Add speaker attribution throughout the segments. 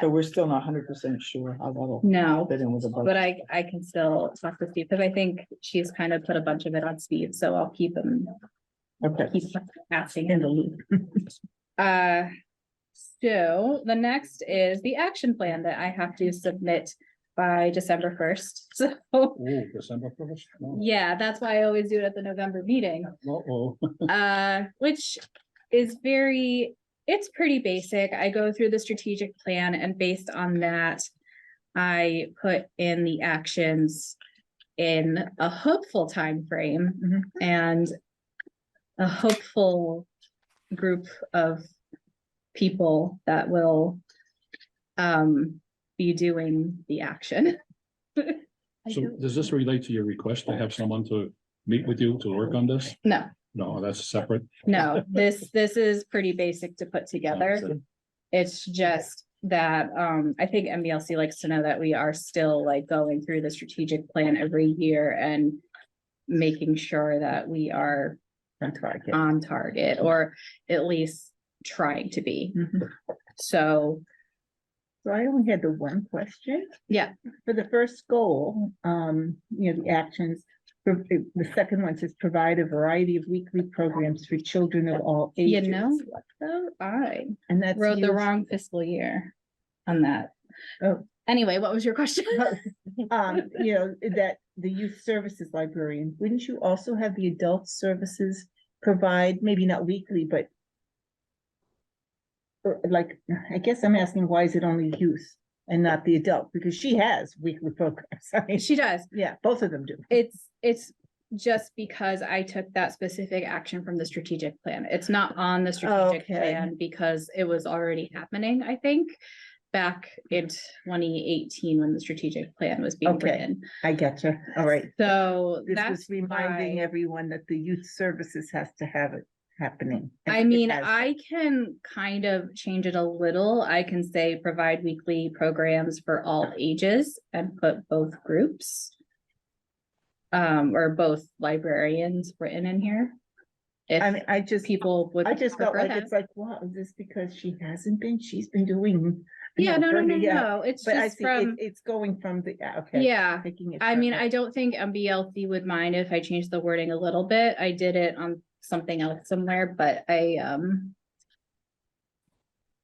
Speaker 1: So we're still not hundred percent sure how that'll
Speaker 2: No,
Speaker 1: fit in with the
Speaker 2: but
Speaker 1: budget.
Speaker 2: I, I can still talk to Steve, because I think she's kind of put a bunch of it on Steve, so I'll keep him,
Speaker 1: Okay,
Speaker 2: keep asking in the loop. Uh, so the next is the action plan that I have to submit by December first, so,
Speaker 3: Oh, December first?
Speaker 2: yeah, that's why I always do it at the November meeting.
Speaker 3: Uh-oh.
Speaker 2: uh, which is very, it's pretty basic. I go through the strategic plan and based on that, I put in the actions in a hopeful time frame and a hopeful group of people that will um be doing the action.
Speaker 3: So does this relate to your request to have someone to meet with you to work on this?
Speaker 2: No,
Speaker 3: No, that's separate.
Speaker 2: no, this this is pretty basic to put together. It's just that, um, I think MBLC likes to know that we are still like going through the strategic plan every year and making sure that we are
Speaker 1: on target.
Speaker 2: on target or at least trying to be.
Speaker 1: Mhm.
Speaker 2: So,
Speaker 4: So I only had the one question.
Speaker 2: Yeah.
Speaker 4: For the first goal, um, you know, the actions, for- eh, the second one says provide a variety of weekly programs for children of all
Speaker 2: you
Speaker 4: ages.
Speaker 2: know, what though? I
Speaker 4: And that's.
Speaker 2: wrote the
Speaker 4: used-
Speaker 2: wrong fiscal year on that.
Speaker 4: Oh.
Speaker 2: Anyway, what was your question?
Speaker 4: Um, you know, that the youth services librarian, wouldn't you also have the adult services provide, maybe not weekly, but or like, I guess I'm asking, why is it only youth and not the adult? Because she has weekly programs. I mean,
Speaker 2: She does.
Speaker 4: Yeah, both of them do.
Speaker 2: It's, it's just because I took that specific action from the strategic plan. It's not on the strategic
Speaker 4: Okay.
Speaker 2: plan because it was already happening, I think. Back in twenty eighteen when the strategic plan was being
Speaker 4: Okay.
Speaker 2: written.
Speaker 4: I getcha. All right.
Speaker 2: So
Speaker 4: This
Speaker 2: that's
Speaker 4: was reminding
Speaker 2: why-
Speaker 4: everyone that the youth services has to have it happening. and
Speaker 2: I
Speaker 4: it
Speaker 2: mean,
Speaker 4: has
Speaker 2: I can kind of change it a little. I can say provide weekly programs for all ages and put both groups. Um, or both librarians written in here.
Speaker 4: been. I
Speaker 2: If
Speaker 4: mean, I just,
Speaker 2: people would.
Speaker 4: I just felt
Speaker 2: prefer
Speaker 4: like
Speaker 2: that.
Speaker 4: it's like, wow, is this because she hasn't been? She's been doing. you
Speaker 2: Yeah,
Speaker 4: know,
Speaker 2: no, no, no,
Speaker 4: burning- yeah,
Speaker 2: no, it's
Speaker 4: But I
Speaker 2: just
Speaker 4: see, it,
Speaker 2: from,
Speaker 4: it's going from the, yeah, okay.
Speaker 2: yeah.
Speaker 4: Taking it
Speaker 2: I mean, I
Speaker 4: further.
Speaker 2: don't think MBLC would mind if I changed the wording a little bit. I did it on something else somewhere, but I, um.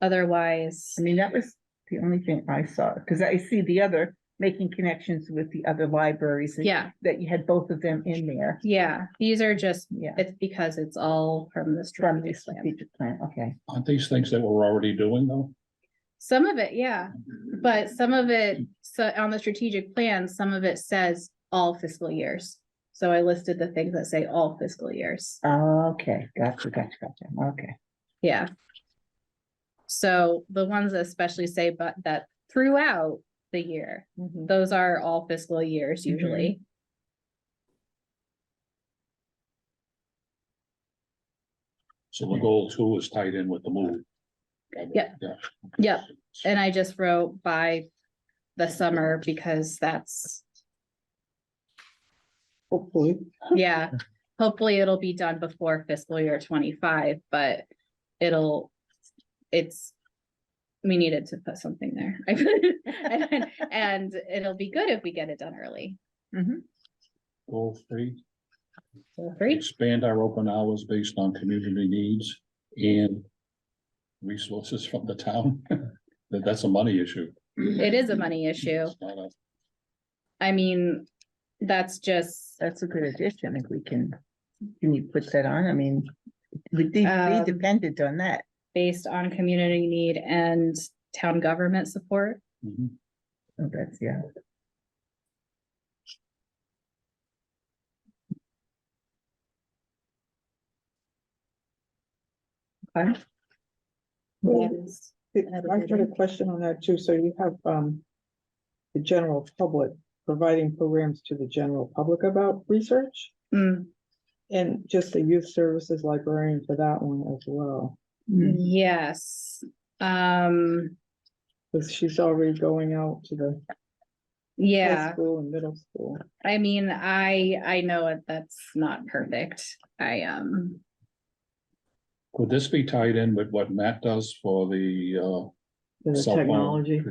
Speaker 2: Otherwise,
Speaker 4: I mean, that was the only thing I saw, because I see the other, making connections with the other libraries. and
Speaker 2: yeah,
Speaker 4: That you had both of them in there.
Speaker 2: yeah, these are just,
Speaker 4: Yeah.
Speaker 2: it's because it's all from the
Speaker 4: From the
Speaker 2: strategic plan.
Speaker 4: strategic plan, okay.
Speaker 3: Aren't these things that we're already doing though?
Speaker 2: Some of it, yeah, but some of it, so on the strategic plan, some of it says all fiscal years. So I listed the things that say all fiscal years.
Speaker 4: Okay, gotcha, gotcha, gotcha, okay.
Speaker 2: Yeah. So the ones that especially say but that throughout the year, those are all fiscal years usually.
Speaker 3: So the goal too is tied in with the move.
Speaker 2: Yeah.
Speaker 3: Yeah.
Speaker 2: Yep. And I just wrote by the summer because that's,
Speaker 1: Hopefully,
Speaker 2: yeah. Hopefully it'll be done before fiscal year twenty-five, but it'll, it's, we needed to put something there. And it'll be good if we get it done early. Mm-hmm.
Speaker 3: Goal three,
Speaker 2: Feel free.
Speaker 3: expand our open hours based on community needs and resources from the town. That, that's a money issue.
Speaker 2: It is a money issue.
Speaker 3: It's not a-
Speaker 2: I mean, that's just,
Speaker 4: That's a good addition, if we can, can you put that on, I mean, we de-
Speaker 2: Um,
Speaker 4: we depended on that.
Speaker 2: based on community need and town government support.
Speaker 3: Mhm.
Speaker 4: Oh, That's, yeah,
Speaker 2: Okay.
Speaker 1: Well,
Speaker 2: That is-
Speaker 1: I've got a question on that too. So you have, um, the general public providing programs to the general public about research
Speaker 2: Mm,
Speaker 1: and just the youth services librarian for that one as well.
Speaker 4: Mm.
Speaker 2: Yes, um,
Speaker 1: Cause she's already going out to the high
Speaker 2: yeah,
Speaker 1: school and middle school.
Speaker 2: I mean, I, I know it- that's not perfect. I, um,
Speaker 3: Could this be tied in with what Matt does for the, uh,
Speaker 1: to the
Speaker 3: Cell phone.
Speaker 1: technology.